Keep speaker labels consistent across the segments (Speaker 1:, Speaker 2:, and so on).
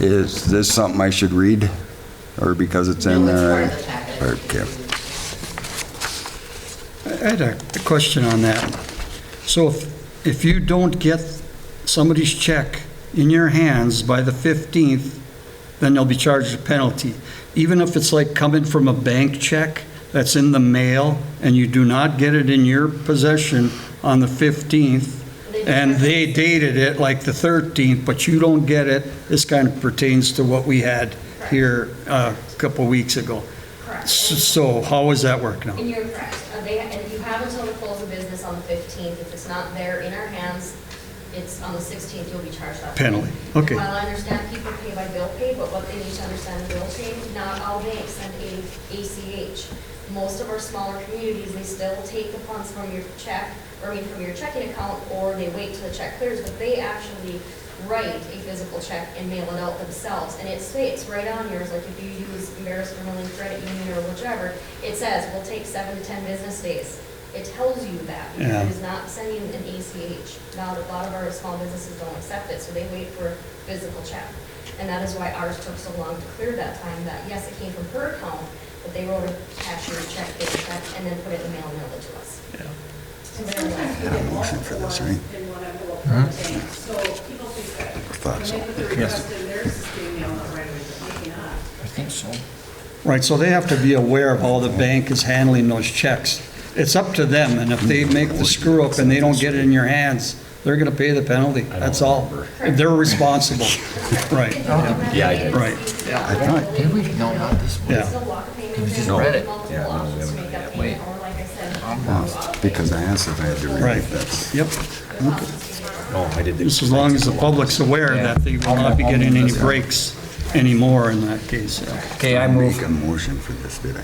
Speaker 1: Is this something I should read, or because it's in
Speaker 2: No,
Speaker 3: uh,
Speaker 2: it's part
Speaker 1: there?
Speaker 2: of the packet.
Speaker 1: Okay.
Speaker 3: I had a a question on that. So if, if you don't get somebody's check in your hands by the 15th, then they'll be charged a penalty. Even if it's like coming from a bank check that's in the mail and you do not get it in your possession on the 15th, and they dated it like the 13th, but you don't get it, this kind of pertains to what we had here uh, a couple weeks ago. S-
Speaker 2: Correct.
Speaker 3: So how does that work now?
Speaker 2: And you're correct. Uh, They, and you have until the close of business on the 15th. If it's not there in our hands, it's on the 16th, you'll be charged that.
Speaker 3: Penalty. Okay.
Speaker 2: While I understand people pay by bill pay, but what they need to understand is bill pay, not all banks send A- ACH. Most of our smaller communities, they still take the funds from your check, or I mean, from your checking account, or they wait till the check clears, but they actually write a physical check and mail it out themselves. And it states right on yours, like if you use Embarrass Vermillion Credit Union or whichever, it says, will take seven to 10 business days. It tells you that, because
Speaker 3: Yeah.
Speaker 2: it is not sending an E ACH. Now, a lot of our small businesses don't accept it, so they wait for physical check. And that is why ours took so long to clear that time, that yes, it came from her account, but they wrote a cashier's check, they checked, and then put it in the mail and mailed it to us.
Speaker 4: And sometimes we get
Speaker 1: motion for this,
Speaker 4: multiple
Speaker 1: right?
Speaker 4: ones in one envelope from the bank, so people think that when
Speaker 1: thought so.
Speaker 4: they put the request in, theirs is getting mailed out right away, but maybe not.
Speaker 5: I think so.
Speaker 3: Right, so they have to be aware of how the bank is handling those checks. It's up to them, and if they make the screw up and they don't get it in your hands, they're gonna pay the penalty, that's all. They're responsible, right.
Speaker 2: Yeah, I
Speaker 5: did.
Speaker 3: Right.
Speaker 1: I thought-
Speaker 5: Did we? No, not this one.
Speaker 3: Yeah.
Speaker 2: Still walk a payment.
Speaker 5: We just
Speaker 2: thing,
Speaker 5: read it.
Speaker 2: multiple
Speaker 6: Yeah, no, we
Speaker 2: options to
Speaker 6: haven't
Speaker 2: make
Speaker 6: done
Speaker 2: that
Speaker 6: it yet.
Speaker 2: payment, or like I said,
Speaker 1: Lost, Because I asked if I had to read
Speaker 3: Right.
Speaker 1: it, that's,
Speaker 3: Yep,
Speaker 2: there's options to make that.
Speaker 6: No, I did the.
Speaker 3: just as long as the public's aware that they will not be getting any breaks anymore in that case, yeah.
Speaker 5: Okay, I
Speaker 1: I make
Speaker 5: move.
Speaker 1: a motion for this, did I?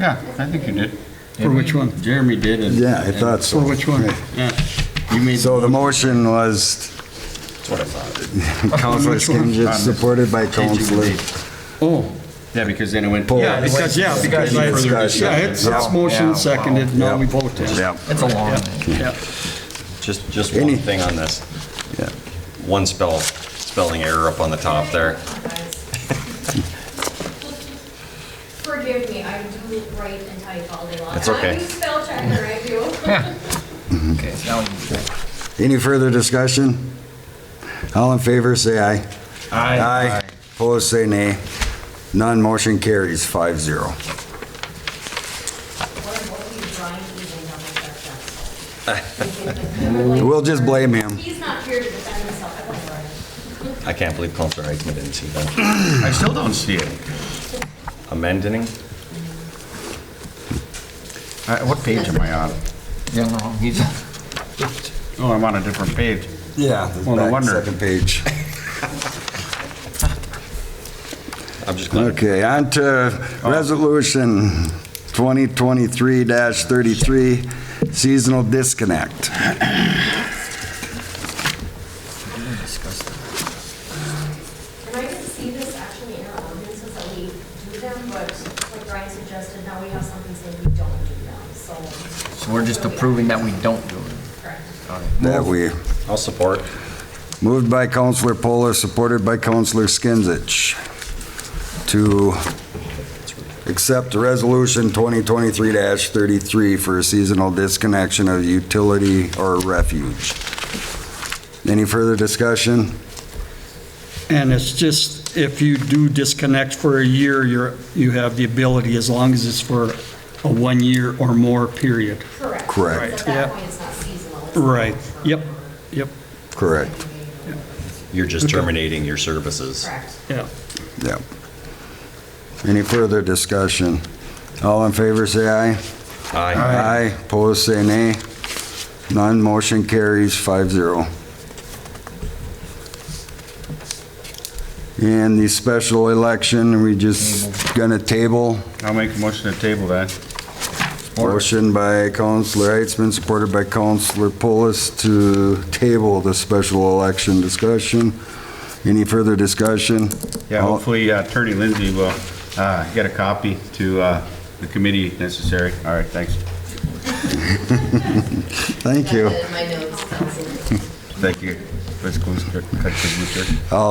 Speaker 7: Yeah, I think you did.
Speaker 3: For which one?
Speaker 7: Oh, Jeremy did. and-
Speaker 1: Yeah, I thought so.
Speaker 3: For which one?
Speaker 7: Yeah, you made.
Speaker 1: So the motion was, Counselor Skinsich, supported by Counselor.
Speaker 3: Oh,
Speaker 7: Yeah, because then it went.
Speaker 1: Paul.
Speaker 3: yeah, because, yeah, because, I-
Speaker 1: Further discussion.
Speaker 3: yeah, it's, it's motion seconded, now we vote, yeah.
Speaker 1: Yeah,
Speaker 5: It's a long.
Speaker 3: Yeah.
Speaker 6: Just, just one
Speaker 1: Any-
Speaker 6: thing on this.
Speaker 1: yeah.
Speaker 6: One spell, spelling error up on the top there.
Speaker 2: Forgive me, I do write and type all day long.
Speaker 6: That's okay.
Speaker 2: I'm a spell checker, I do.
Speaker 5: Okay, now you do it.
Speaker 1: Any further discussion? All in favor, say aye. Aye. Opposed, say nay. None, motion carries five zero.
Speaker 2: What what are you drawing even on my check
Speaker 1: We'll just blame him.
Speaker 2: He's not here to defend himself, I won't worry.
Speaker 6: I can't believe Counselor Heitzman didn't see that.
Speaker 7: I still don't see it.
Speaker 6: Amending?
Speaker 7: Uh, What page am I on?
Speaker 5: You're on the wrong, he's,
Speaker 7: Oh, I'm on a different page.
Speaker 1: Yeah.
Speaker 7: Well, no
Speaker 1: back
Speaker 7: wonder.
Speaker 1: Second page.
Speaker 6: I'm just glad.
Speaker 1: Okay, on to resolution 2023-33, seasonal disconnect.
Speaker 2: And I didn't see this actually in our ordinances that we do them, but like Brian suggested, now we have something saying we don't do them, so.
Speaker 5: so we're just approving that we don't do it.
Speaker 2: Correct.
Speaker 5: All right.
Speaker 1: That we,
Speaker 6: I'll support.
Speaker 1: moved by Counselor Polar, supported by Counselor Skinsich, to accept resolution 2023-33 for a seasonal disconnection of utility or refuge. Any further discussion?
Speaker 3: And it's just, if you do disconnect for a year, you're, you have the ability, as long as it's for a one-year or more period.
Speaker 2: Correct.
Speaker 1: Correct.
Speaker 2: At that
Speaker 3: Yeah.
Speaker 2: point, it's not seasonal. it's
Speaker 3: Right,
Speaker 2: long-term.
Speaker 3: yep, yep,
Speaker 1: Correct,
Speaker 6: You're just terminating your services.
Speaker 2: Correct.
Speaker 3: yeah.
Speaker 1: yeah. Any further discussion? All in favor, say aye.
Speaker 6: Aye.
Speaker 1: Aye. Opposed, say nay. None, motion carries 5-0. And the special election, we just gonna table.
Speaker 7: I'll make a motion to table that.
Speaker 1: Motion by Counselor Heitzman, supported by Counselor Polis to table the special election discussion. Any further discussion?
Speaker 7: Yeah,
Speaker 1: All-
Speaker 7: hopefully uh, Attorney Lindsay will uh, get a copy to uh, the committee if necessary. All right, thanks.
Speaker 1: Thank you.
Speaker 2: My notes, that's it.
Speaker 7: Thank you. Let's go. start- cut to the-
Speaker 1: All